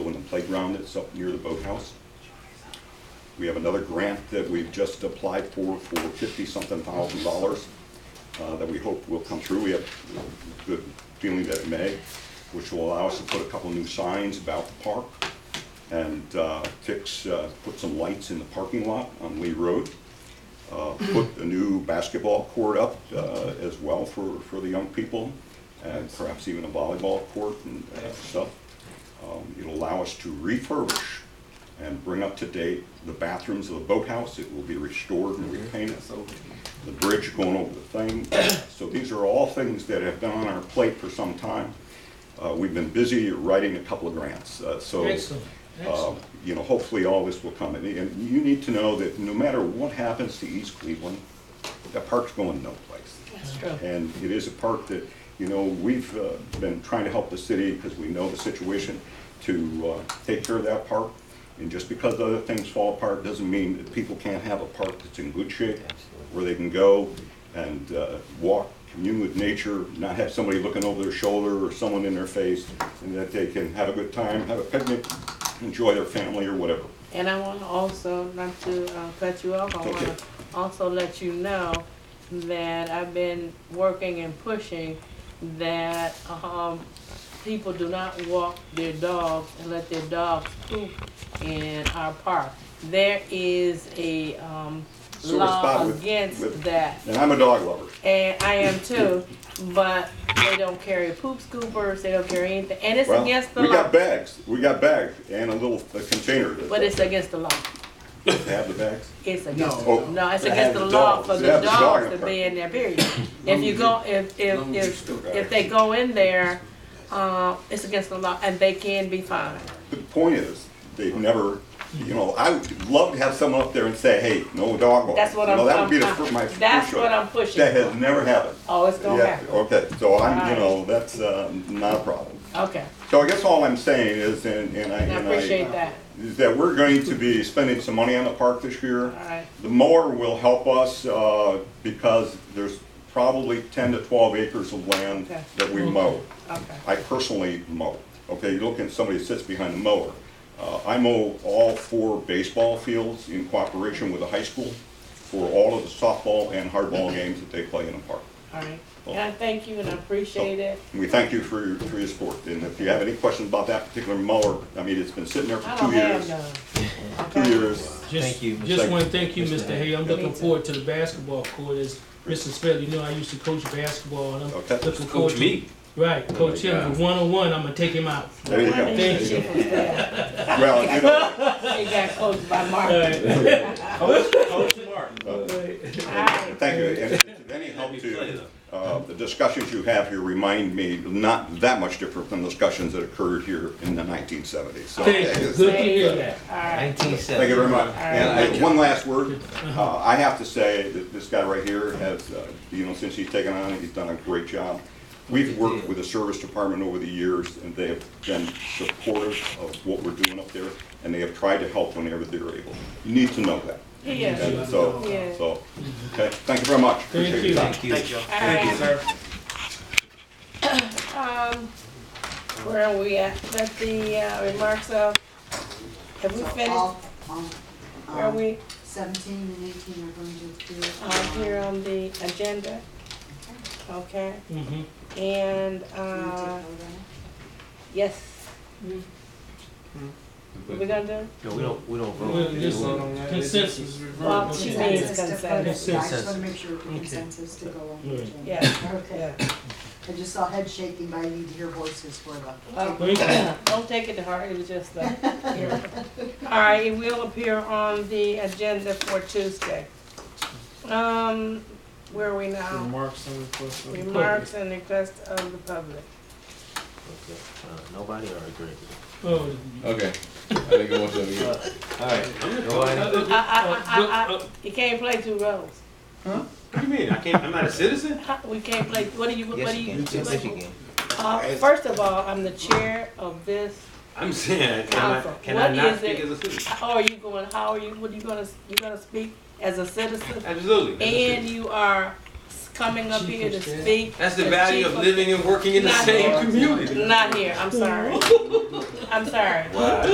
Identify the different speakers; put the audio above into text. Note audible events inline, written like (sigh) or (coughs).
Speaker 1: playground that's up near the boathouse. We have another grant that we've just applied for, for fifty-something thousand dollars, uh, that we hope will come through. We have a good feeling that it may, which will allow us to put a couple new signs about the park and, uh, fix, uh, put some lights in the parking lot on Lee Road. Uh, put a new basketball court up, uh, as well for, for the young people, and perhaps even a volleyball court and, uh, stuff. Um, It'll allow us to refurbish and bring up to date the bathrooms of the boathouse. It will be restored and
Speaker 2: Mm-hmm.
Speaker 1: repainted, the bridge going over the thing. (coughs) So these are all things that have been on our plate for some time. Uh, We've been busy writing a couple of grants, uh, so.
Speaker 2: Excellent,
Speaker 1: uh,
Speaker 2: excellent.
Speaker 1: You know, hopefully all this will come. And- And you need to know that no matter what happens to East Cleveland, the park's going no place.
Speaker 3: That's true.
Speaker 1: And it is a park that, you know, we've uh, been trying to help the city because we know the situation to uh, take care of that park. And just because other things fall apart doesn't mean that people can't have a park that's in good shape, where they can go and uh, walk, commune with nature, not have somebody looking over their shoulder or someone in their face, and that they can have a good time, have a picnic, enjoy their family or whatever.
Speaker 3: And I want to also, not to uh, cut you off, I want
Speaker 1: Okay.
Speaker 3: to also let you know that I've been working and pushing that um, people do not walk their dogs and let their dogs poop in our park. There is a um,
Speaker 1: Sore
Speaker 3: law
Speaker 1: spot with- with-
Speaker 3: against that.
Speaker 1: And I'm a dog lover.
Speaker 3: And I am too, but they don't carry poop scoopers, they don't carry anything, and it's
Speaker 1: Well,
Speaker 3: against the
Speaker 1: We
Speaker 3: law.
Speaker 1: got bags, we got bags and a little a container. that-
Speaker 3: But it's against the law.
Speaker 1: Have the bags?
Speaker 3: It's against,
Speaker 1: No.
Speaker 3: the- no, it's
Speaker 1: To Oh. have
Speaker 3: against the
Speaker 1: the
Speaker 3: law
Speaker 1: dogs.
Speaker 3: for
Speaker 1: To
Speaker 3: the
Speaker 1: have the dog
Speaker 3: dogs
Speaker 1: in
Speaker 3: to
Speaker 1: the
Speaker 3: be
Speaker 1: park.
Speaker 3: in there, period. If you go, if, if,
Speaker 4: Long as you
Speaker 3: if,
Speaker 4: still got
Speaker 3: if they go in there, uh, it's against the law and they can be fined.
Speaker 1: The point is, they've never, you know, I would love to have someone up there and say, hey, no dog walking.
Speaker 3: That's what
Speaker 1: You know,
Speaker 3: I'm-
Speaker 1: That would be the
Speaker 3: I'm-
Speaker 1: fir- my first.
Speaker 3: that's what
Speaker 1: choice.
Speaker 3: I'm pushing
Speaker 1: That
Speaker 3: for.
Speaker 1: has never happened.
Speaker 3: Oh, it's gonna
Speaker 1: Yeah,
Speaker 3: happen.
Speaker 1: okay, so I'm, you
Speaker 3: Alright.
Speaker 1: know, that's uh, not a problem.
Speaker 3: Okay,
Speaker 1: So I guess all I'm saying is, and and I,
Speaker 3: and I
Speaker 1: and
Speaker 3: appreciate
Speaker 1: I,
Speaker 3: that.
Speaker 1: is that we're going to be spending some money on the park this year.
Speaker 3: Alright.
Speaker 1: The mower will help us uh, because there's probably 10 to 12 acres of land
Speaker 3: Okay.
Speaker 1: that we mow.
Speaker 3: Okay,
Speaker 1: I personally mow. Okay, you look at somebody that sits behind the mower. Uh, I mow all four baseball fields in cooperation with the high school for all of the softball and hardball games that they play in the park.
Speaker 3: all right. And I thank you and I appreciate it.
Speaker 1: And we thank you for your, for your support. And if you have any questions about that particular mower, I mean, it's been sitting there
Speaker 3: I
Speaker 1: for
Speaker 3: don't
Speaker 1: two
Speaker 3: have
Speaker 1: years.
Speaker 3: none.
Speaker 1: (laughs) Two
Speaker 3: Okay.
Speaker 1: years.
Speaker 2: Just-
Speaker 5: Thank you, Mr.
Speaker 2: Just want to thank you,
Speaker 5: Mr.
Speaker 2: Mr. Hay. I'm looking
Speaker 3: too.
Speaker 2: forward to the basketball court. As Mr. Spell, you know, I used to coach basketball and I'm
Speaker 1: Okay.
Speaker 2: looking forward to.
Speaker 4: Coach me.
Speaker 2: Right, coach him, with one-on-one, I'm gonna take him out.
Speaker 1: There you
Speaker 3: Why
Speaker 1: go.
Speaker 3: didn't
Speaker 2: Thank
Speaker 3: you
Speaker 2: you.
Speaker 3: shoot from there?
Speaker 1: Well, you know,
Speaker 3: It got coached by
Speaker 2: All
Speaker 3: Mark.
Speaker 2: right. All
Speaker 1: uh,
Speaker 2: right.
Speaker 3: All right.
Speaker 1: thank you. And if it's of any help to, uh, the discussions you have here remind me not that much different than discussions that occurred here in the 1970s. So,
Speaker 2: Thank you, good to hear that.
Speaker 3: All right.
Speaker 5: Nineteen seventy.
Speaker 1: Thank you very much.
Speaker 3: right.
Speaker 1: And uh, one last word. Uh, I have to say that this guy right here has, uh, you know, since he's taken on, it, he's done a great job. We've worked with the service department over the years, and they have been supportive of what we're doing up there, and they have tried to help whenever they're able. You need to know that.
Speaker 3: He is.
Speaker 1: And so,
Speaker 3: Yeah.
Speaker 1: so, okay, thank you very much.
Speaker 2: Thank
Speaker 1: Appreciate your
Speaker 2: you.
Speaker 1: time.
Speaker 5: Thank you.
Speaker 3: Thank you, sir. Um, where are we at? Let the uh, remarks of, have we
Speaker 6: So
Speaker 3: finished?
Speaker 6: all- all,
Speaker 3: Where are
Speaker 6: um,
Speaker 3: we,
Speaker 6: Seventeen and eighteen are going to appear.
Speaker 3: uh, here on the agenda? Okay,
Speaker 2: Mhm.
Speaker 3: and,
Speaker 6: Can we
Speaker 3: uh,
Speaker 6: take vote on it?
Speaker 3: yes. What we gonna do?
Speaker 5: No, we don't, we don't
Speaker 2: Well, just
Speaker 5: vote.
Speaker 2: consensus.
Speaker 3: Well, she needs
Speaker 6: Consensus to
Speaker 3: consent.
Speaker 6: vote. Yeah, I just
Speaker 5: Consensus.
Speaker 6: wanna make sure consensus to go on. the
Speaker 2: Right.
Speaker 6: agenda.
Speaker 3: Yeah.
Speaker 6: Okay, I just saw head shaking, but I need to hear voices for the.
Speaker 3: Uh,
Speaker 2: Thank you.
Speaker 3: Don't take it to heart, it was just a. All right, it will appear on the agenda for Tuesday. Um, where are we now?
Speaker 7: Remarks and requests. of the public.
Speaker 3: Remarks and requests of the public.
Speaker 5: Okay, uh, Nobody are agreeing.
Speaker 2: Oh,
Speaker 4: Okay. I think I want to be.
Speaker 5: Alright, nobody,
Speaker 3: I, I, I, I, I, you can't play two roles. (laughs)
Speaker 4: What do you mean? I can't. I'm not a citizen.
Speaker 3: How- We can't play, what do you, what
Speaker 5: yes
Speaker 3: do
Speaker 5: you
Speaker 3: you?
Speaker 5: can, yes you
Speaker 3: what-
Speaker 5: can.
Speaker 3: Uh, first of all, I'm the chair of this,
Speaker 4: I'm saying. Can
Speaker 3: Counsel,
Speaker 4: I, can
Speaker 3: what
Speaker 4: I not
Speaker 3: is
Speaker 4: speak
Speaker 3: it?
Speaker 4: as a citizen?
Speaker 3: how are you going, how are you, what are you gonna, you gonna speak as a citizen?
Speaker 4: Absolutely. as a
Speaker 3: And
Speaker 4: citizen.
Speaker 3: you are s- coming up here to speak.
Speaker 4: That's the
Speaker 3: as
Speaker 4: value
Speaker 3: chief
Speaker 4: of living and working in the
Speaker 3: Not
Speaker 4: same
Speaker 3: here.
Speaker 4: community. (laughs)
Speaker 3: Not here, I'm sorry. I'm sorry.
Speaker 4: Wow.